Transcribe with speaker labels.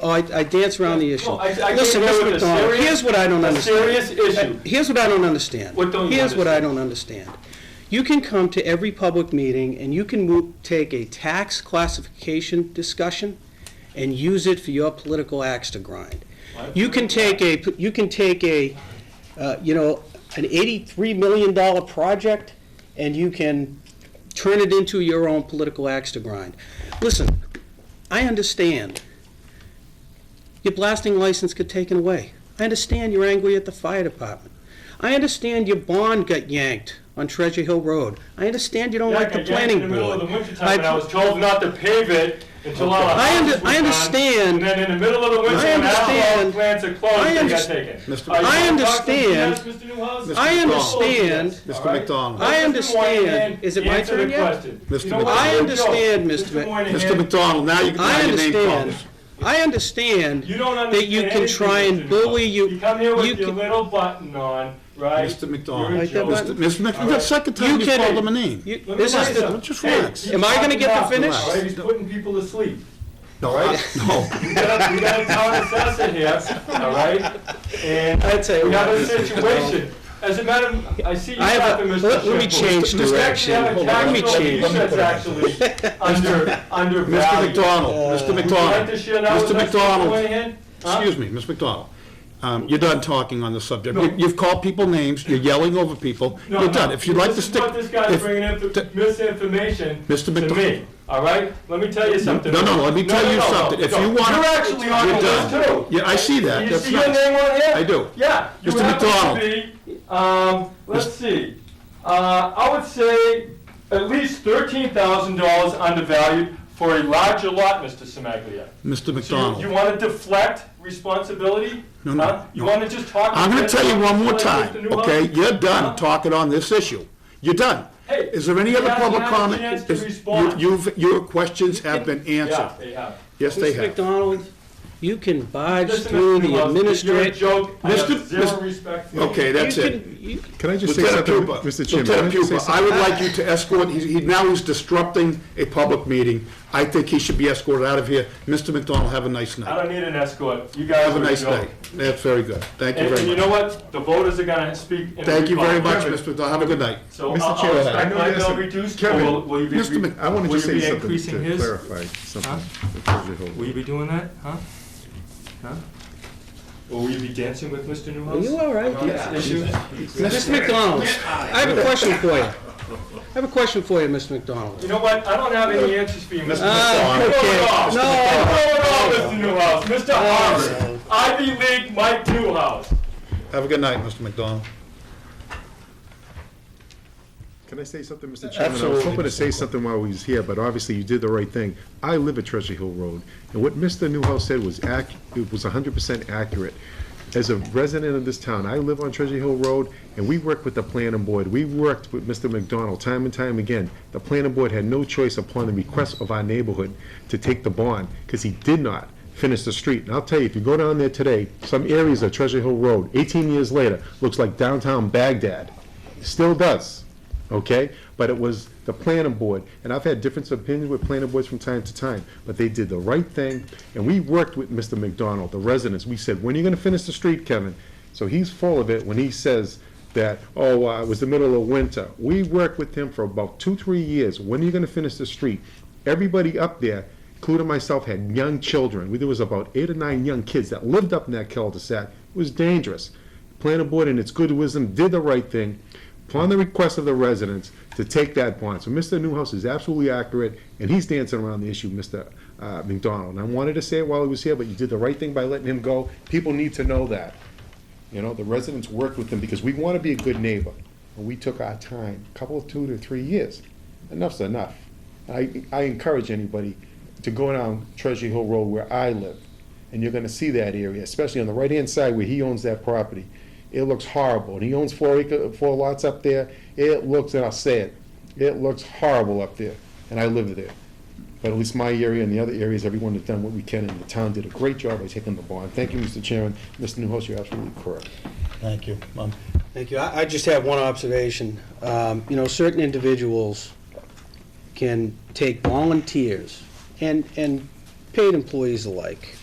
Speaker 1: Oh, I, I dance around the issue.
Speaker 2: No, I- I can't
Speaker 1: Listen,
Speaker 2: deal with
Speaker 1: Mr.
Speaker 2: a
Speaker 1: McDonald,
Speaker 2: serious-
Speaker 1: here's what I don't
Speaker 2: a
Speaker 1: understand.
Speaker 2: serious issue.
Speaker 1: Here's what I don't understand.
Speaker 2: What don't you
Speaker 1: Here's what I don't understand. You can come to every public meeting and you can mo- take a tax classification discussion and use it for your political axe to grind. You can take a, you can take a, uh, you know, an eighty-three million dollar project and you can turn it into your own political axe to grind. Listen, I understand your blasting license got taken away. I understand you're angry at the fire department. I understand your bond got yanked on Treasure Hill Road. I understand you don't
Speaker 2: Yeah,
Speaker 1: like the
Speaker 2: I yanked it
Speaker 1: planning
Speaker 2: In the middle of the
Speaker 1: board.
Speaker 2: wintertime, and I was told not to pave it until all the
Speaker 1: I under-
Speaker 2: houses were
Speaker 1: I
Speaker 2: gone,
Speaker 1: understand.
Speaker 2: And then in the middle of the winter,
Speaker 1: I
Speaker 2: when all the
Speaker 1: understand.
Speaker 2: plants are closed,
Speaker 1: I
Speaker 2: they got
Speaker 1: underst-
Speaker 2: taken.
Speaker 3: Mr.
Speaker 2: Are you
Speaker 1: I
Speaker 2: gonna talk to me,
Speaker 1: understand.
Speaker 2: yes, Mr. Newhouse?
Speaker 3: Mr.
Speaker 1: I
Speaker 3: McDonald.
Speaker 1: understand.
Speaker 2: Yes,
Speaker 3: Mr.
Speaker 2: all right?
Speaker 3: McDonald.
Speaker 1: I
Speaker 2: Mr.
Speaker 1: understand.
Speaker 2: Moynihan,
Speaker 1: Is it my
Speaker 2: answer
Speaker 1: turn
Speaker 2: the
Speaker 1: yet?
Speaker 2: question.
Speaker 3: Mr.
Speaker 2: You know what?
Speaker 3: I
Speaker 2: No,
Speaker 1: understand, Mr. Mc-
Speaker 2: Mr. Moynihan.
Speaker 3: Mr. McDonald, now you can
Speaker 1: I
Speaker 3: now your name
Speaker 1: understand.
Speaker 3: calls.
Speaker 1: I understand
Speaker 2: You don't understand
Speaker 1: that you can
Speaker 2: anything,
Speaker 1: try
Speaker 2: Mr.
Speaker 1: and bully you.
Speaker 2: You come here
Speaker 1: you
Speaker 2: with your
Speaker 1: can-
Speaker 2: little button on, right?
Speaker 3: Mr. McDonald.
Speaker 2: You're a
Speaker 1: Like that
Speaker 2: joke.
Speaker 1: button?
Speaker 3: Mr. Mr. McDonald, that's the second time
Speaker 1: You
Speaker 3: you
Speaker 1: kidding.
Speaker 3: called him a name.
Speaker 1: you-
Speaker 2: Let me
Speaker 1: This
Speaker 2: tell
Speaker 1: is
Speaker 2: you
Speaker 1: the,
Speaker 2: something.
Speaker 3: just
Speaker 2: Hey,
Speaker 3: relax.
Speaker 2: he's
Speaker 1: Am I gonna
Speaker 2: talking
Speaker 1: get to
Speaker 2: about the
Speaker 1: finish?
Speaker 2: left, Right, he's putting people to sleep.
Speaker 3: No, I- no.
Speaker 2: We got, we got a town assessor here, all right? And
Speaker 1: I'd say-
Speaker 2: we have a situation. As a matter, of- I see you
Speaker 1: I have a-
Speaker 2: talking, Mr.
Speaker 1: let- let me
Speaker 2: Sheffield.
Speaker 1: change
Speaker 2: We actually have a
Speaker 1: direction. Let me
Speaker 2: tax bill
Speaker 1: change.
Speaker 2: that's actually under,
Speaker 3: Mr.
Speaker 2: undervalued.
Speaker 3: McDonald,
Speaker 1: Uh,
Speaker 3: Mr.
Speaker 2: Would you like
Speaker 3: McDonald,
Speaker 2: to share that with
Speaker 3: Mr.
Speaker 2: us, Mr.
Speaker 3: McDonald,
Speaker 2: Moynihan? Huh?
Speaker 3: excuse me, Ms. McDonald. Um, You're done talking on the subject. You- You've called people names, you're yelling over people,
Speaker 2: No,
Speaker 3: you're
Speaker 2: no.
Speaker 3: done. If you'd like to
Speaker 2: This is
Speaker 3: stick.
Speaker 2: what this guy's
Speaker 3: if-
Speaker 2: bringing in
Speaker 3: t-
Speaker 2: misinformation
Speaker 3: Mr.
Speaker 2: to
Speaker 3: McDonald.
Speaker 2: me. All right, let me tell you something.
Speaker 3: No, no, let me
Speaker 2: No,
Speaker 3: tell
Speaker 2: no,
Speaker 3: you
Speaker 2: no, no,
Speaker 3: something. If
Speaker 2: no.
Speaker 3: you wanna-
Speaker 2: you're actually on
Speaker 3: You're
Speaker 2: the list
Speaker 3: done.
Speaker 2: too.
Speaker 3: Yeah, I see that.
Speaker 2: You
Speaker 3: That's
Speaker 2: see your
Speaker 3: nice.
Speaker 2: name on here?
Speaker 3: I do.
Speaker 2: Yeah. you
Speaker 3: Mr.
Speaker 2: happen to
Speaker 3: McDonald.
Speaker 2: be, Um, let's see, uh, I would say at least thirteen thousand dollars undervalued for a larger lot, Mr. Semaglia. So
Speaker 3: Mr.
Speaker 2: you- you
Speaker 3: McDonald,
Speaker 2: wanna deflect responsibility?
Speaker 3: No, no,
Speaker 2: Huh? You
Speaker 3: no.
Speaker 2: wanna just talk?
Speaker 3: I'm gonna tell you one more
Speaker 2: like Mr.
Speaker 3: time,
Speaker 2: Newhouse?
Speaker 3: okay? You're
Speaker 2: Huh?
Speaker 3: done talking on this issue. You're done.
Speaker 2: Uh-huh. Hey,
Speaker 3: Is there any
Speaker 2: you
Speaker 3: other
Speaker 2: haven't
Speaker 3: public
Speaker 2: had a
Speaker 3: comment?
Speaker 2: chance to
Speaker 3: Is- you-
Speaker 2: respond.
Speaker 3: You've, your questions have been answered.
Speaker 2: Yeah, they have.
Speaker 3: Yes, they
Speaker 1: Mr.
Speaker 3: have.
Speaker 1: McDonald, you can barge
Speaker 2: Listen,
Speaker 1: through
Speaker 2: Mr.
Speaker 1: the
Speaker 2: Newhouse, You're a
Speaker 1: administrative.
Speaker 2: joke. I have
Speaker 3: Mr.
Speaker 2: zero
Speaker 3: Mr.
Speaker 2: respect for you.
Speaker 3: Okay, that's
Speaker 1: you
Speaker 3: it.
Speaker 1: can- you-
Speaker 4: Can I just say
Speaker 3: Lieutenant
Speaker 4: something,
Speaker 3: Pupa,
Speaker 4: Mr. Chairman? Can I
Speaker 3: Lieutenant
Speaker 4: just say
Speaker 3: Pupa, I
Speaker 4: something?
Speaker 3: would like you to escort, he's- he, now he's disrupting a public meeting. I think he should be escorted out of here. Mr. McDonald, have a nice
Speaker 2: I
Speaker 3: night.
Speaker 2: don't need an escort. You guys
Speaker 3: Have
Speaker 2: are
Speaker 3: a
Speaker 2: a
Speaker 3: nice
Speaker 2: joke.
Speaker 3: day. That's very good. Thank you
Speaker 2: And and you
Speaker 3: very
Speaker 2: know
Speaker 3: much.
Speaker 2: what? The voters are gonna speak. in the
Speaker 3: Thank you very much,
Speaker 2: Republic.
Speaker 3: Mr. McDonald. Have a good night.
Speaker 2: So
Speaker 4: Mr.
Speaker 2: I'll- I'll
Speaker 4: Chairman, I
Speaker 2: respect
Speaker 4: know
Speaker 2: my
Speaker 4: there's
Speaker 2: bill
Speaker 4: a-
Speaker 2: reduced, or
Speaker 4: Kevin,
Speaker 2: will will you be?
Speaker 3: Mr. Mc-
Speaker 4: I wanted
Speaker 2: will
Speaker 4: to
Speaker 2: you be
Speaker 4: say something
Speaker 2: increasing
Speaker 4: to
Speaker 2: his?
Speaker 4: clarify something. before you hold
Speaker 2: Will you be doing that, huh? Huh? Or will you be dancing with Mr. Newhouse?
Speaker 1: Are you all right?
Speaker 2: On this issue?
Speaker 1: Mr. McDonald, I have a question for you. I have a question for you, Mr. McDonald.
Speaker 2: You know what? I don't have any answers for you, Mr.
Speaker 1: Ah,
Speaker 3: McDonald.
Speaker 1: okay.
Speaker 2: Throw
Speaker 1: No,
Speaker 2: it off, Mr. Newhouse, Mr. Harvard, Ivy League Mike Newhouse.
Speaker 3: Have a good night, Mr. McDonald.
Speaker 4: Can I say something, Mr. Chairman? I was
Speaker 3: Absolutely,
Speaker 4: hoping to
Speaker 3: Mr.
Speaker 4: say something while we was here, but obviously you did the right thing. I live at Treasure Hill Road, and what Mr. Newhouse said was ac, it was hundred percent accurate. As a resident of this town, I live on Treasure Hill Road, and we work with the planning board. We worked with Mr. McDonald time and time again. The planning board had no choice upon the request of our neighborhood to take the bond, because he did not finish the street. And I'll tell you, if you go down there today, some areas of Treasure Hill Road, eighteen years later, looks like downtown Baghdad. Still does okay? But it was the planning board, and I've had different opinions with planning boards from time to time, but they did the right thing, and we worked with Mr. McDonald, the residents, we said, when are you gonna finish the street, Kevin? So he's full of it when he says that, oh, uh, it was the middle of winter. We worked with him for about two, three years, when are you gonna finish the street? Everybody up there including myself, had young children. We- There was about eight or nine young kids that lived up in that cul-de-sac. It was dangerous. Planning board, in its good wisdom, did the right thing upon the request of the residents to take that bond. So Mr. Newhouse is absolutely accurate, and he's dancing around the issue, Mr. uh, McDonald. And I wanted to say it while he was here, but you did the right thing by letting him go. People need to know that. You know, the residents worked with them because we want to be a good neighbor. And we took our time, a couple of two to three years. Enough's enough. I, I encourage anybody to go down Treasure Hill Road where I live. And you're gonna see that area, especially on the right-hand side where he owns that property. It looks horrible. And he owns four acre, four lots up there. It looks, and I'll say it, it looks horrible up there. And I live there. But at least my area and the other areas, everyone has done what we can, and the town did a great job by taking the bond. Thank you, Mr. Chairman. Mr. Newhouse, you're absolutely correct.
Speaker 3: Thank you. Um,
Speaker 1: Thank you. I, I just have one observation. Um, you know, certain individuals can take volunteers and, and paid employees alike